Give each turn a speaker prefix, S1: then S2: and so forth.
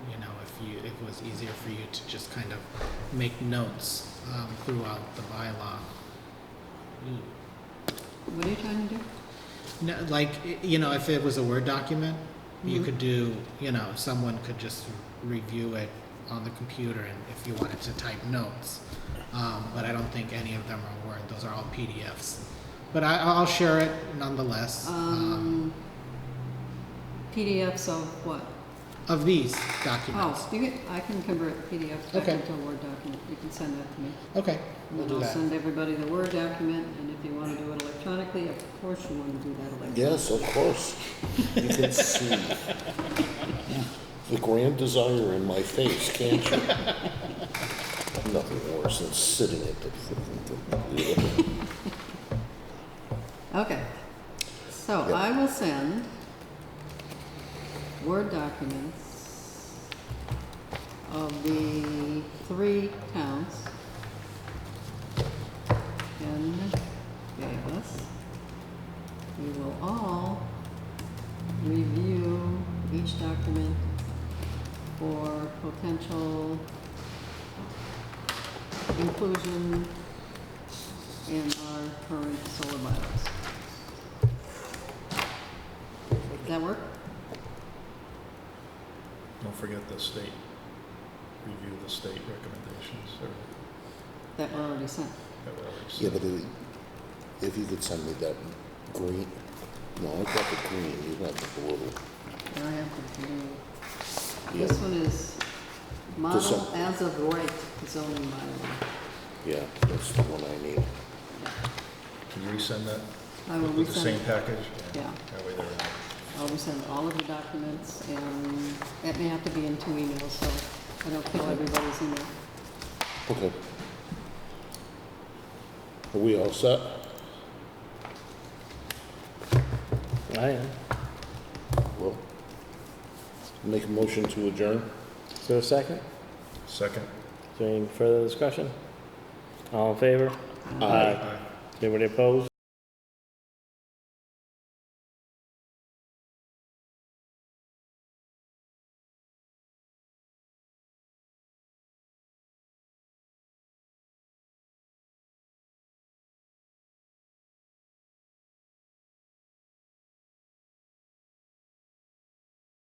S1: you, it was easier for you to just kind of make notes um, throughout the bylaw. Ooh.
S2: What are you trying to do?
S1: No, like, y- you know, if it was a Word document, you
S2: Mhm.
S1: could do, you know, someone could just review it on the computer and if you wanted to type notes. Um, but I don't think any of them are Word, those are all PDFs. But I, I'll share it nonetheless.
S2: Um, PDFs of what?
S1: Of these documents.
S2: Oh, you can, I can convert PDF back
S1: Okay.
S2: into a Word document. You can send that to me.
S1: Okay,
S2: And
S1: Oh. we'll
S2: then
S1: do
S2: I'll
S1: that.
S2: send everybody the Word document, and if you want to do it electronically, of course you want to do that electronically.
S3: Yes, of course. You can see the grand desire in my face, can't you? Nothing worse than sitting at the.
S2: Okay. So
S3: Yeah.
S2: I will send Word documents of the three towns in Bayless. We will all review each document for potential inclusion in our current solar bylaws. Does that work?
S4: Don't forget the state, review the state recommendations or
S2: That were already sent.
S4: that were already
S3: Yeah,
S4: sent.
S3: but if- if you could send me that green, no, I got the green, you got the blue.
S2: Now I have to do,
S3: Yeah.
S2: this one is model
S3: Decem-
S2: as of right zoning bylaw.
S3: Yeah, that's the one I need.
S4: Can you resend that?
S2: I will
S4: With the same
S2: resend,
S4: package?
S2: Yeah.
S4: That way they're,
S2: I'll resend all of the documents and that may have to be in two emails, so I don't kill everybody's email.
S3: Okay. Are we all set? I am. Well, make a motion to adjourn?
S5: Is there a second?
S4: second?
S5: Is there any further discussion? All in favor?
S3: Aye.
S4: Aye.
S5: Anybody opposed?